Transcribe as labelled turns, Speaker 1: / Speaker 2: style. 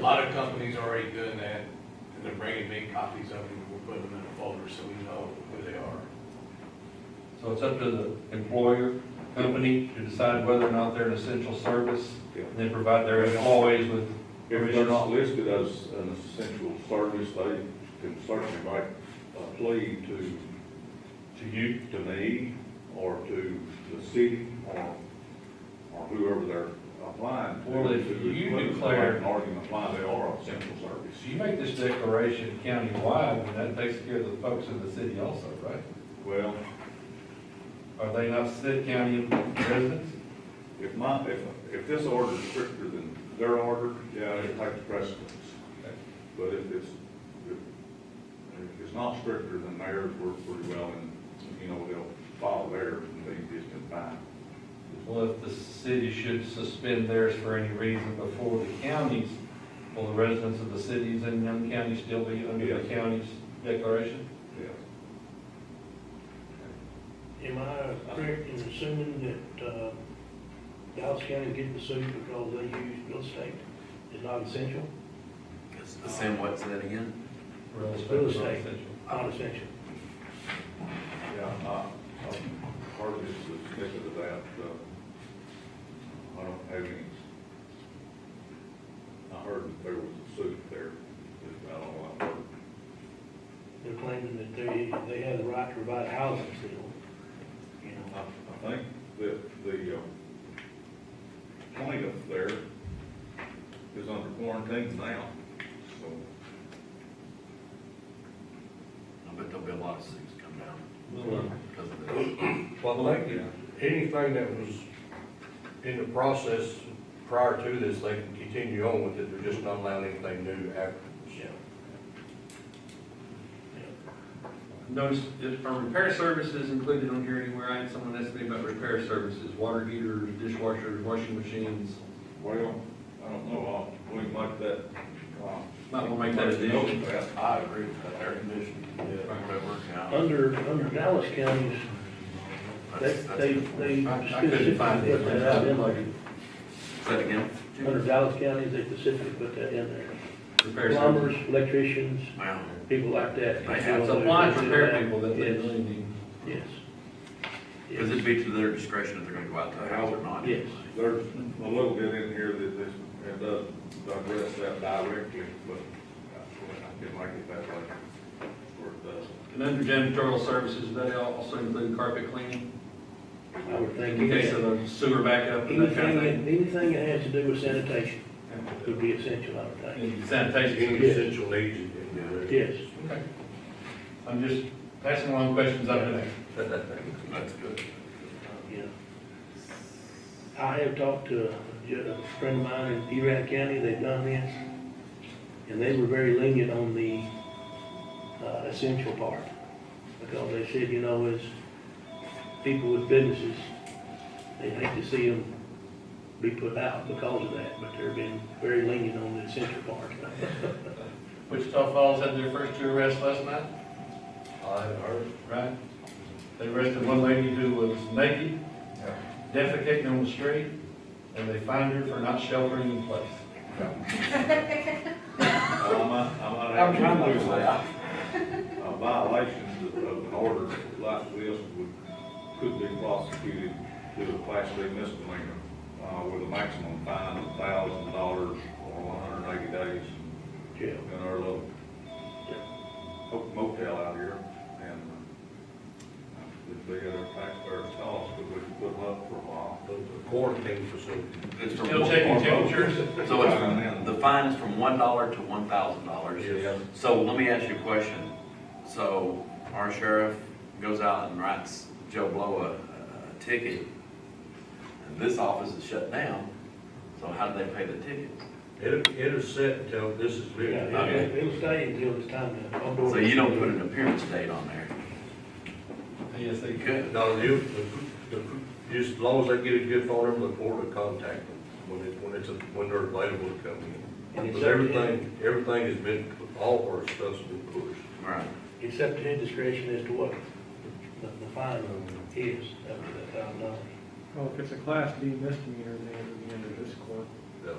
Speaker 1: lot of companies are already doing that, and they're bringing big copies of them, we're putting them in a folder so we know who they are.
Speaker 2: So it's up to the employer, company, to decide whether or not they're an essential service.
Speaker 3: Yeah.
Speaker 2: And they provide their employees with,
Speaker 3: If they're not listed as an essential service, they can certainly make a plea to,
Speaker 2: to you,
Speaker 3: to me, or to the city, or, or whoever they're applying to.
Speaker 2: Well, if
Speaker 3: to
Speaker 2: you
Speaker 3: include, make
Speaker 2: declare-
Speaker 3: An argument why they are essential service.
Speaker 2: so you make this declaration countywide, and that takes care of the folks in the city also, right?
Speaker 3: Well,
Speaker 2: Are they not Stitt County residents?
Speaker 3: if my, if, if this order is stricter than their order, yeah, it takes precedence.
Speaker 2: Okay.
Speaker 3: But if it's, if, if it's not stricter than theirs, we're pretty well in, you know, they'll follow theirs and they just in fine.
Speaker 2: Well, if the city should suspend theirs for any reason before the counties, will the residents of the cities in them counties still be under the
Speaker 3: Yes.
Speaker 2: county's declaration?
Speaker 3: Yeah.
Speaker 4: Am I correct in assuming that, uh, Dallas County getting sued because they use real estate is not essential?
Speaker 5: It's the same, what's that again?
Speaker 2: Real estate.
Speaker 4: Real
Speaker 2: is not
Speaker 4: estate.
Speaker 2: essential.
Speaker 4: Not essential.
Speaker 3: Yeah, I, I'm hardly suspicious of that, uh, I don't have any. I heard that there was a suit there, I don't know, I heard,
Speaker 4: They're claiming that they, they have the right to provide housing still, you know.
Speaker 3: I, I think that the, uh, plaintiff there is under quarantine now, so.
Speaker 5: I bet there'll be a lot of cities come down
Speaker 2: Well,
Speaker 5: because of this.
Speaker 6: Well, I think
Speaker 2: yeah.
Speaker 6: that anything that was in the process prior to this, they can continue on with it, they're just not allowing anything new afterwards.
Speaker 4: Yeah.
Speaker 7: Notice, if, are repair services included on here anywhere? I had someone ask me about repair services, water heaters, dishwashers, washing machines.
Speaker 3: Well, I don't know, I'll, we can make that, uh.
Speaker 7: Might wanna make that addition.
Speaker 3: Note that.
Speaker 5: I agree with that, air conditioning, whatever, yeah.
Speaker 4: Under, under Dallas County's, they,
Speaker 5: That's- that's-
Speaker 4: they, they
Speaker 7: I- I couldn't find
Speaker 4: specifically put
Speaker 7: it.
Speaker 4: that out in there.
Speaker 5: Say that again?
Speaker 4: Under Dallas County, they specifically put that in there.
Speaker 7: Repair services.
Speaker 4: Plumbers, electricians,
Speaker 5: Wow.
Speaker 4: people like that.
Speaker 5: They have
Speaker 7: It's applied repair people that they
Speaker 4: Yes,
Speaker 7: really need.
Speaker 4: Yes.
Speaker 5: Because it'd be to their discretion if they're gonna go out to the house or not.
Speaker 4: Yes.
Speaker 3: There's a little bit in here that this, it does address that directly, but uh, I can make it that way, or it does.
Speaker 7: And under janitorial services, do they also include carpet cleaning,
Speaker 4: I would think.
Speaker 7: in case of a sewer backup and that kind
Speaker 4: Anything,
Speaker 7: of thing.
Speaker 4: anything that has to do with sanitation would be essential, I would
Speaker 7: And
Speaker 4: think.
Speaker 6: Any
Speaker 7: Sanitation.
Speaker 6: essential needs. in there.
Speaker 4: Yes.
Speaker 7: Okay. I'm just passing along questions I've been asked.
Speaker 5: That's good.
Speaker 4: Yeah. I have talked to a ju- a friend of mine in Erath County, they've done this, and they were very lenient on the uh, essential part. Because they said, you know, as people with businesses, they hate to see them be put out because of that, but they're being very lenient on the essential part.
Speaker 2: Wichita Falls had their first two arrests last night,
Speaker 6: I haven't heard.
Speaker 2: right? They arrested one lady who was naked, defecating on the street, and they fined her for not sheltering in place.
Speaker 3: I might, I might
Speaker 1: I'm trying to look
Speaker 3: actually do
Speaker 1: for
Speaker 3: that.
Speaker 1: that.
Speaker 3: Uh, Violations of of an order like this would, could be prosecuted to a class B misdemeanor, uh, with a maximum fine of thousand dollars or one hundred and eighty days
Speaker 4: Jail.
Speaker 3: in our little ho- motel out here, and uh, it'd be at our taxpayers' cost, but we could put them up for a while.
Speaker 6: The Quarantine facility.
Speaker 5: It's from
Speaker 2: Still
Speaker 5: one-
Speaker 2: taking temperatures?
Speaker 5: So it's, the fine is from one dollar to one thousand dollars.
Speaker 6: Yes.
Speaker 5: So let me ask you a question. So our sheriff goes out and writes Joe Blow a, a ticket, and this office is shut down, so how do they pay the ticket?
Speaker 6: It, it is set until this is
Speaker 4: Yeah,
Speaker 6: legal.
Speaker 5: I mean-
Speaker 4: it'll- it'll stay until it's time to. unboard.
Speaker 5: So you don't put an appearance date on there.
Speaker 2: Yes, they
Speaker 5: You
Speaker 2: could.
Speaker 5: could.
Speaker 6: No, you, the, the, just as long as they get a good phone number, the court will contact them when it, when it's, when they're available to come
Speaker 4: And
Speaker 6: in. But
Speaker 4: it's up to him.
Speaker 6: everything, everything has been, all our stuff's been pushed.
Speaker 5: Right.
Speaker 4: It's up to his discretion as to what the, the fine is, up to that thousand dollars.
Speaker 8: Well, if it's a class B misdemeanor, then it'll be under this court.
Speaker 6: No,